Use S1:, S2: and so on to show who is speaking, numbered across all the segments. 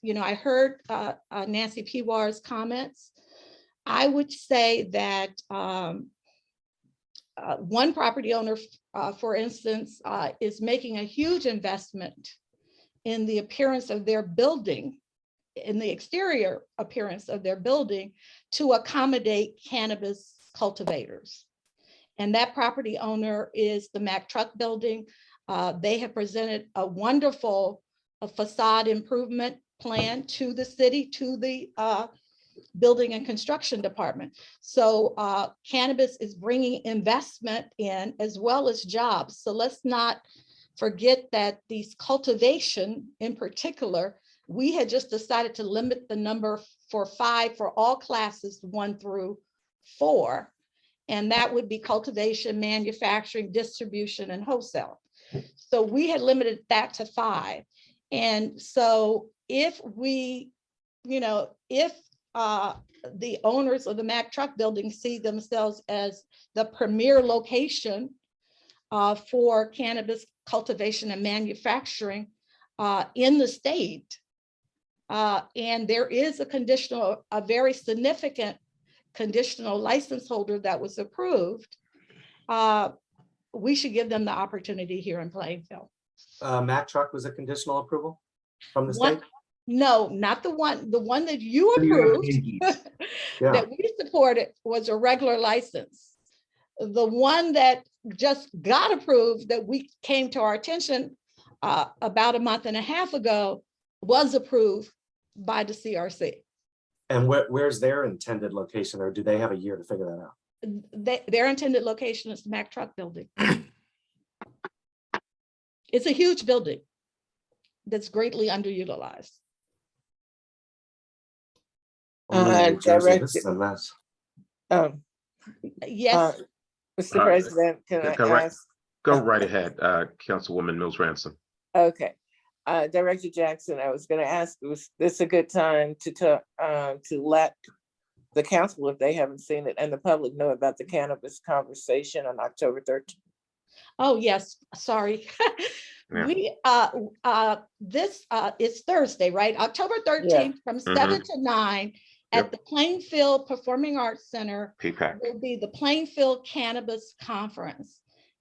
S1: you know, I heard uh, uh, Nancy Pivar's comments. I would say that um, uh, one property owner, uh, for instance, uh, is making a huge investment in the appearance of their building, in the exterior appearance of their building to accommodate cannabis cultivators. And that property owner is the Mack Truck Building. Uh, They have presented a wonderful a facade improvement plan to the city, to the uh, Building and Construction Department. So uh, cannabis is bringing investment in as well as jobs. So let's not forget that these cultivation in particular, we had just decided to limit the number for five for all classes, one through four. And that would be cultivation, manufacturing, distribution, and wholesale. So we had limited that to five. And so if we, you know, if uh, the owners of the Mack Truck Building see themselves as the premier location uh, for cannabis cultivation and manufacturing uh, in the state, uh, and there is a conditional, a very significant conditional license holder that was approved, uh, we should give them the opportunity here in Plainfield.
S2: uh, Mack truck was a conditional approval from the
S1: One-
S2: state?
S1: No, not the one, the one that you approved,
S3: Approved.
S2: Yeah,
S1: that we supported was a regular license. The one that just got approved, that we came to our attention uh, about a month and a half ago, was approved by the CRC.
S2: and where, where's their intended location or do they have a year to figure that out?
S1: They- Their intended location is the Mack Truck Building. It's a huge building that's greatly underutilized.
S2: I'm living in
S4: Uh,
S2: New Jersey, This
S4: direct-
S2: is a mess.
S4: Um, uh,
S1: Yes,
S4: Mr.
S3: Uh,
S4: President, can
S3: go
S4: I
S3: right-
S4: ask?
S3: Go right ahead, uh, Councilwoman Mills Ransom.
S4: Okay, uh, Director Jackson, I was gonna ask, was this a good time to talk, uh, to let the council, if they haven't seen it, and the public know about the cannabis conversation on October thirteenth?
S1: oh, yes, sorry.
S3: Yeah.
S1: We, uh, w- uh, this, uh, is Thursday, right? October thirteenth from seven to nine at
S3: Mm-hmm. Yep.
S1: the Plainfield Performing Arts Center
S3: P-PAC.
S1: will be the Plainfield Cannabis Conference.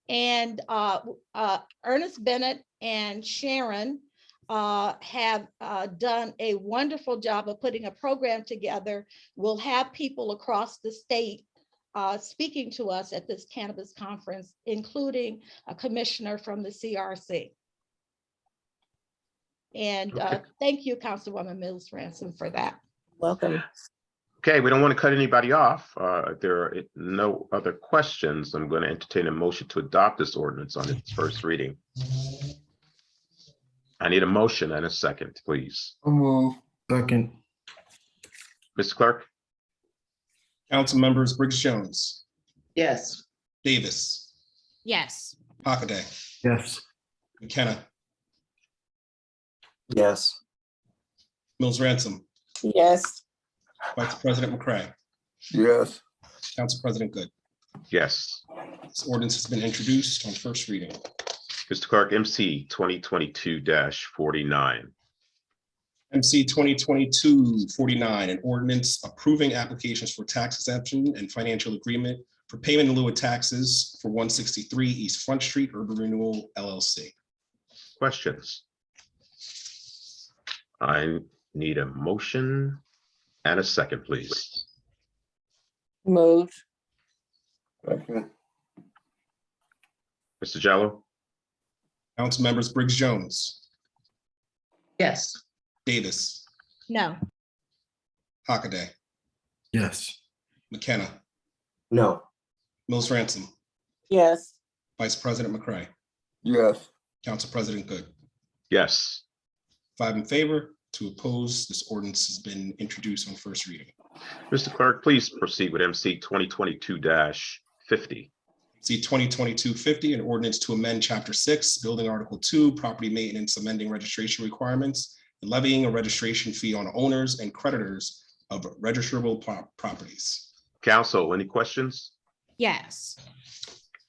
S1: And, uh, w- uh, Ernest Bennett and Sharon, uh, have, uh, done a wonderful job of putting a program together. We'll have people across the state, uh, speaking to us at this cannabis conference, including a commissioner from the CRC. And uh,
S3: Okay.
S1: thank you, Councilwoman Mills Ransom, for that.
S4: Welcome.
S3: Okay, we don't want to cut anybody off. Uh, if There are no other questions. I'm going to entertain a motion to adopt this ordinance on its first reading. I need a motion and a second, please.
S5: I'll move. Second.
S3: Ms. Clerk?
S6: Council members Briggs Jones,
S7: yes,
S6: Davis,
S8: yes,
S6: Hockaday,
S5: Yes.
S6: McKenna,
S2: Yes,
S6: Mills Ransom,
S4: Yes,
S6: Vice President McCray,
S5: Yes.
S6: Council President Good.
S3: Yes.
S6: This ordinance has been introduced on first reading.
S3: Mr. Clerk, MC 2022-49.
S6: MC 2022-49, an ordinance approving applications for tax exemption and financial agreement for payment in lieu of taxes for 163 East Front Street Urban Renewal LLC.
S3: Questions? I need a motion and a second, please.
S4: moved.
S5: Second.
S3: Mr. Jello?
S6: Council members Briggs Jones,
S7: yes.
S6: Davis,
S1: No.
S6: Hockaday,
S5: Yes.
S6: McKenna,
S2: no,
S6: Mills Ransom,
S4: Yes,
S6: Vice President McCray,
S5: Yes.
S6: Council President Good.
S3: Yes.
S6: Five in favor, two opposed. This ordinance has been introduced on first reading.
S3: Mr. Clerk, please proceed with MC 2022-50.
S6: See 2022-50, an ordinance to amend Chapter 6, Building Article 2, Property Maintenance, amending registration requirements, and levying a registration fee on owners and creditors of registrable pro- properties.
S3: Council, any questions?
S8: yes.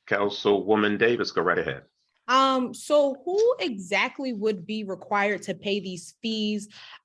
S3: Councilwoman Davis, go right ahead.
S8: Um, so who exactly would be required to pay these fees?